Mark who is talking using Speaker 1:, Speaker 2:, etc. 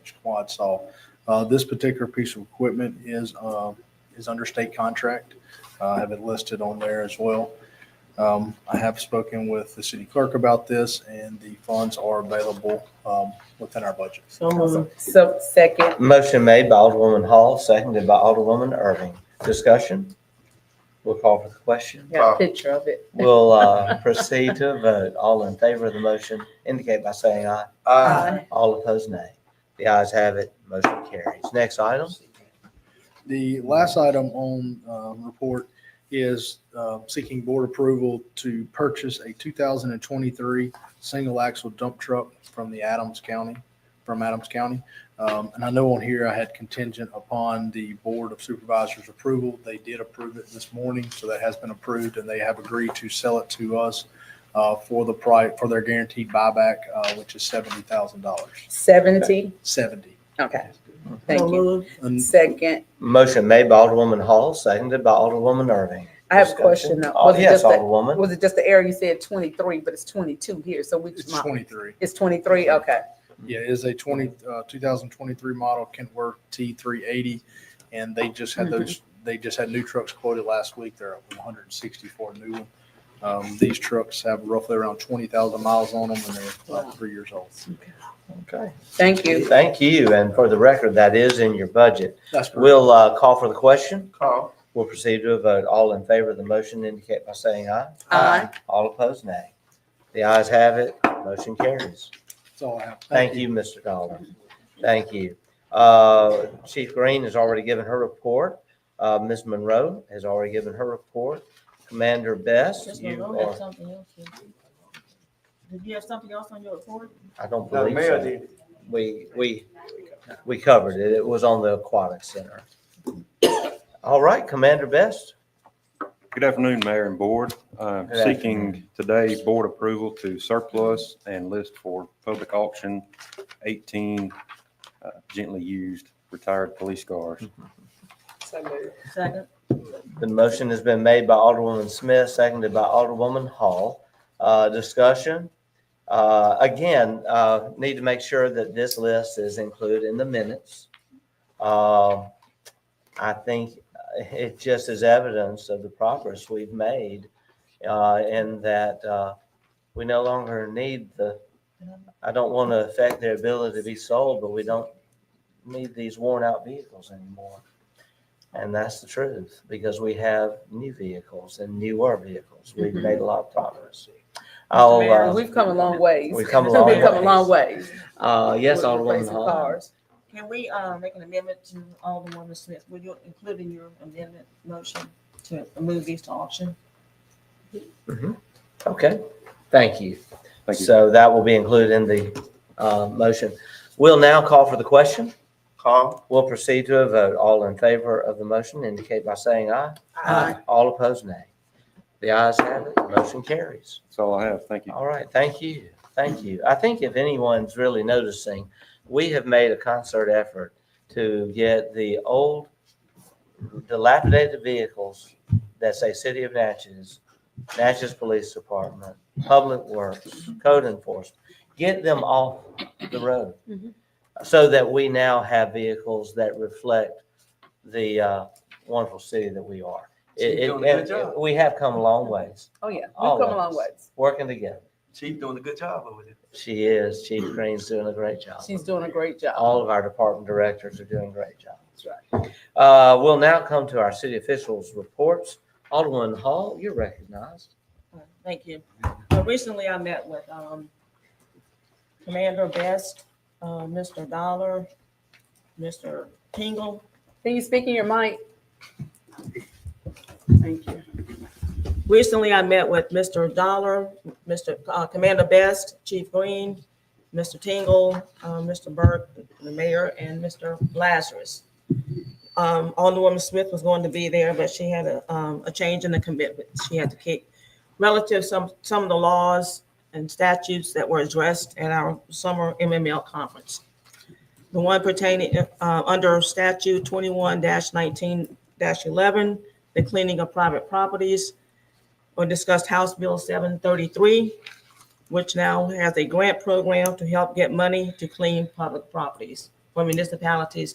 Speaker 1: inch quad saw. Uh, This particular piece of equipment is, uh, is under state contract. Uh, I have it listed on there as well. Um, I have spoken with the city clerk about this and the funds are available um, within our budget.
Speaker 2: So moved.
Speaker 3: Um, So second,
Speaker 4: Motion made by Alderwoman Hall, seconded by Alderwoman Irving. Discussion? We'll call for the question.
Speaker 3: got a picture of it.
Speaker 4: We'll uh, proceed to a vote. All in favor of the motion indicate by saying aye.
Speaker 3: Aye.
Speaker 4: All opposed, nay. The ayes have it, motion carries. Next item?
Speaker 1: The last item on um, report is uh, seeking board approval to purchase a 2023 single axle dump truck from the Adams County, from Adams County. Um, And I know on here I had contingent upon the Board of Supervisors approval. They did approve it this morning, so that has been approved and they have agreed to sell it to us uh, for the price, for their guaranteed buyback, uh, which is $70,000,
Speaker 3: Seventy,
Speaker 1: 70.
Speaker 3: okay,
Speaker 2: So
Speaker 3: thank you.
Speaker 2: moved.
Speaker 1: And
Speaker 3: Second,
Speaker 4: Motion made by Alderwoman Hall, seconded by Alderwoman Irving.
Speaker 3: I have a
Speaker 4: Discussion?
Speaker 3: question now.
Speaker 4: Oh,
Speaker 3: Was it
Speaker 4: Yes,
Speaker 3: just, the-
Speaker 4: Alderwoman.
Speaker 3: was it just the area you said twenty-three, but it's twenty-two here, so which
Speaker 1: It's
Speaker 3: month?
Speaker 1: 23.
Speaker 3: It's twenty-three, okay.
Speaker 1: Yeah, it is a 20, uh, 2023 model Kentworth T380, and they just had those, they just had new trucks quoted last week. They're up 164 new one. Um, These trucks have roughly around 20,000 miles on them, and they're
Speaker 3: Wow.
Speaker 1: about three years old.
Speaker 4: Okay.
Speaker 3: Thank you.
Speaker 4: Thank you, and for the record, that is in your budget.
Speaker 1: That's correct.
Speaker 4: We'll uh, call for the question.
Speaker 2: Call.
Speaker 4: We'll proceed to a vote. All in favor of the motion indicate by saying aye.
Speaker 3: Aye.
Speaker 4: All opposed, nay. The ayes have it, motion carries.
Speaker 1: That's all I have.
Speaker 4: Thank you, Mr. Dolan. Thank you. Uh, Chief Green has already given her report. Uh, Ms. Monroe has already given her report. Commander Best,
Speaker 5: Just
Speaker 4: you
Speaker 5: Monroe had
Speaker 4: are,
Speaker 5: something else. Did you have something else on your report?
Speaker 4: I don't
Speaker 6: No,
Speaker 4: believe
Speaker 6: mayor
Speaker 4: so.
Speaker 6: did.
Speaker 4: We, we, we covered it. It was on the Aquatic Center. All right, Commander Best.
Speaker 7: Good afternoon, Mayor and Board. Uh,
Speaker 4: Good
Speaker 7: Seeking today board approval to surplus and list for public auction 18 uh, gently used retired police cars.
Speaker 2: So moved.
Speaker 5: Second,
Speaker 4: The motion has been made by Alderwoman Smith, seconded by Alderwoman Hall. Uh, Discussion. Uh, Again, uh, need to make sure that this list is included in the minutes. Um, I think it just is evidence of the progress we've made uh, in that uh, we no longer need the, I don't want to affect their ability to be sold, but we don't need these worn-out vehicles anymore. And that's the truth, because we have new vehicles and newer vehicles. We've made a lot of progress. I'll,
Speaker 3: Mm-hmm. Mayor,
Speaker 4: uh,
Speaker 3: We've come a long ways.
Speaker 4: we've come a long
Speaker 3: We've come a long ways.
Speaker 4: uh, yes,
Speaker 3: With
Speaker 4: Alderwoman
Speaker 3: replacing
Speaker 4: Hall.
Speaker 3: cars.
Speaker 5: can we, uh, make an amendment to Alderwoman Smith? Would you include in your amendment motion to move these to auction?
Speaker 4: Okay, thank you.
Speaker 7: Thank you.
Speaker 4: So that will be included in the, uh, motion. We'll now call for the question.
Speaker 6: Call.
Speaker 4: We'll proceed to a vote. All in favor of the motion indicate by saying aye.
Speaker 3: Aye.
Speaker 4: All opposed, nay. The ayes have it, motion carries.
Speaker 7: That's all I have. Thank you.
Speaker 4: All right, thank you, thank you. I think if anyone's really noticing, we have made a concert effort to get the old dilapidated vehicles that say City of Natchez, Natchez Police Department, Public Works, Code Enforcement, get them off the road.
Speaker 3: Mhm.
Speaker 4: So that we now have vehicles that reflect the uh, wonderful city that we are.
Speaker 6: You're
Speaker 4: It-
Speaker 6: doing a good
Speaker 4: it-
Speaker 6: job.
Speaker 4: We have come a long ways,
Speaker 3: Oh, yeah, we've
Speaker 4: All
Speaker 3: come a
Speaker 4: of
Speaker 3: long
Speaker 4: us.
Speaker 3: ways.
Speaker 4: working together.
Speaker 6: Chief doing a good job over there.
Speaker 4: She is. Chief Green's doing a great job.
Speaker 3: She's doing a great job.
Speaker 4: All of our department directors are doing great jobs.
Speaker 3: That's right.
Speaker 4: Uh, we'll now come to our city officials' reports. Alderman Hall, you're recognized.
Speaker 5: Uh, Thank you. Uh, Recently, I met with um, Commander Best, uh, Mr. Dollar, Mr. Tingle.
Speaker 3: Can you speak in your mic? Thank you.
Speaker 5: Recently, I met with Mr. Dollar, Mr. uh, Commander Best, Chief Green, Mr. Tingle, uh, Mr. Burke, the mayor, and Mr. Lazarus. Um, Alderwoman Smith was going to be there, but she had a, um, a change in the commitment she had to keep relative some, some of the laws and statutes that were addressed at our summer MML conference. The one pertaining, uh, under statute twenty-one nineteen eleven, the cleaning of private properties, or discussed House Bill 733, which now has a grant program to help get money to clean public properties. for municipalities